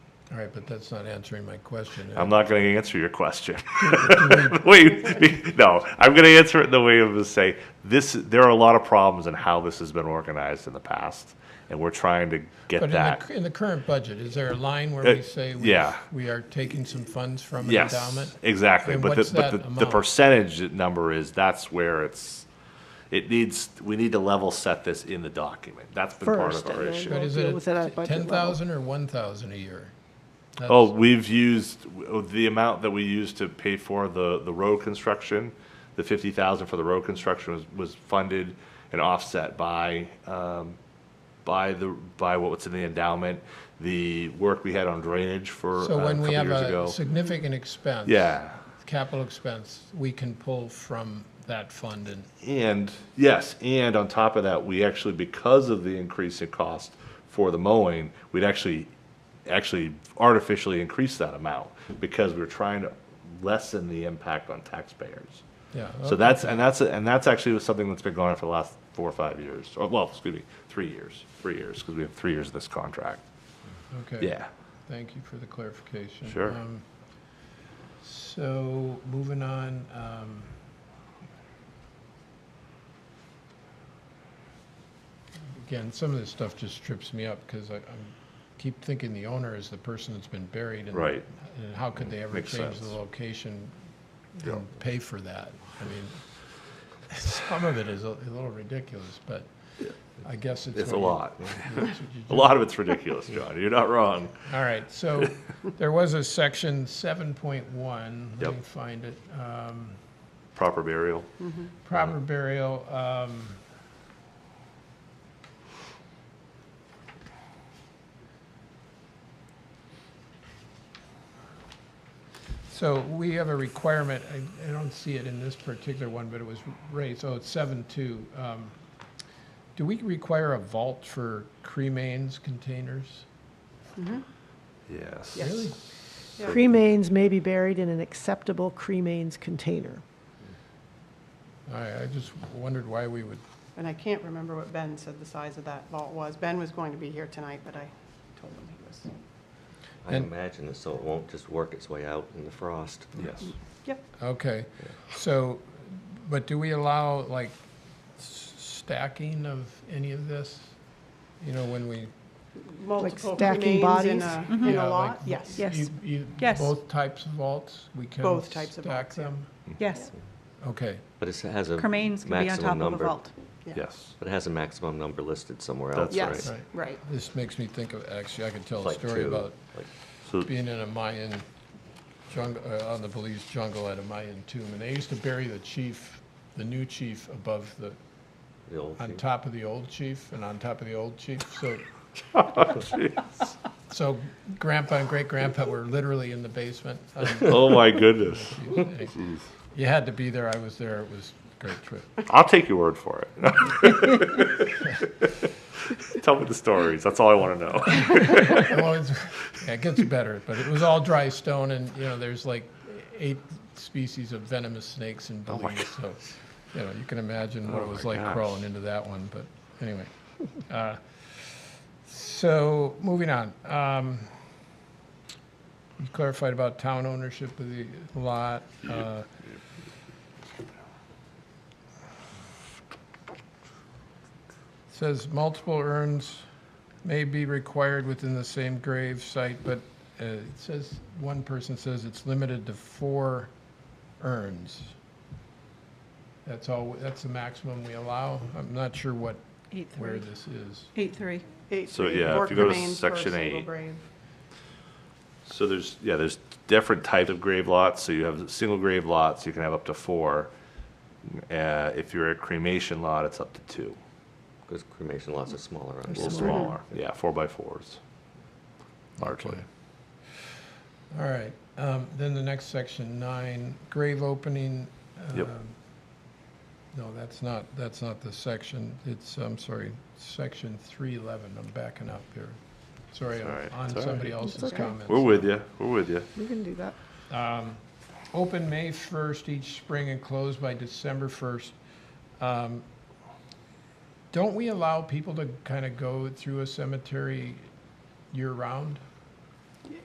All right, but that's not answering my question. I'm not going to answer your question. Wait, no, I'm going to answer it in the way of to say this. There are a lot of problems in how this has been organized in the past, and we're trying to get But in that. the, in the current budget, is there a line where Uh, we say we, yeah. we are taking some funds from an yes, endowment? exactly. And But what's the, but the, that the amount? percentage number is that's where it's. It needs. We need to level set this in the document. That's been part First, of our and then issue. go- But is Deal with it it at budget ten level. thousand or one thousand a year? Oh, we've used, the amount that we used to pay for the, the road construction, the fifty thousand for the road construction was, was funded and offset by, um, by the, by what's in the endowment, the work we had on drainage for uh, a So when couple we have years a ago. significant expense. Yeah, Capital expense, we can pull from that fund and, and, yes, and on top of that, we actually, because of the increase in cost for the mowing, we'd actually, actually artificially increase that amount because we we're trying to lessen the impact on taxpayers. yeah. So that's, and that's, and that's actually something that's been going on for the last four or five years, or, well, excuse me, three years, three years, because we have three years of this contract. Okay. Yeah. Thank you for the clarification. Sure. Um, So, moving on, um, again, some of this stuff just trips me up, because I, I'm, keep thinking the owner is the person that's been buried, and Right. and how could they ever Makes change the sense. location Yeah. and pay for that? I mean, some of it is a a little ridiculous, but I guess it's. It's a what you- lot. it's what you A do. lot of it's ridiculous, John. You're not wrong. All right, so there was a section seven point one, let Yep. me find it, um, Proper burial. proper burial, um. So we have a requirement, I, I don't see it in this particular one, but it was raised, oh, it's seven two, um. Do we require a vault for cremains containers? Yes. Really? Cremains may be buried in an acceptable cremains container. I, I just wondered why we would, And I can't remember what Ben said the size of that vault was. Ben was going to be here tonight, but I told him he was. I And- imagine this, so it won't just work its way out in the frost. Yes. Yep, okay, so, but do we allow, like, s- stacking of any of this? You know, when we. multiple stacking remains in bodies? a, Mm-hmm. in yeah, a like, lot, yes. Yes. you- you- Yes. Both types of vaults, we can. Both types of stack vaults, yeah. them? Yes, Okay, But it has a cremains can be on maximum top of a number. vault. yeah. Yes. But it has a maximum number listed somewhere That's else, right. Yes, Right. right. this makes me think of, actually, I could tell a Like story two, about like- So, being in a Mayan jungle, uh, on the Belize jungle at a Mayan tomb, and they used to bury the chief, the new chief above the, The old on thing. top of the old chief and on top of the old chief, so. So grandpa and great-grandpa were literally in the basement. Um, oh my goodness. You had to be there, I was there, it was a great trip. I'll take your word for it. Tell me the stories. That's all I want to know. Well, it's, yeah, it gets better, but it was all dry stone and, you know, there's like eight species of venomous snakes in Oh Belize, so, you know, you can imagine what it was my like gosh. crawling into that one, but anyway. Uh, So, moving on. Um, You clarified about town ownership of the lot. uh, Says multiple urns may be required within the same grave site, but uh, it says, one person says it's limited to four urns. That's all, that's the maximum we allow. I'm not sure what, Eight where three. this is. Eight three. Eight, So, three, yeah, four if you go to cremains per section single eight. grave. So there's, yeah, there's different types of grave lots. So you have single grave lots, you can have up to four. Uh, if you're a cremation lot, it's up to two. Because cremation lots are smaller. aren't A they? little smaller, yeah, four by fours, largely. All right, um, then the next section, nine, grave opening. Yep. um, No, that's not, that's not the section, it's, I'm sorry, section three eleven, I'm backing up here. Sorry, It's all I'm right, on it's all somebody right. else's It's okay. comments. We're with you, we're with you. We can do that. Um, Open May 1st each spring and closed by December 1st. Um, Don't we allow people to kind of go through a cemetery year-round?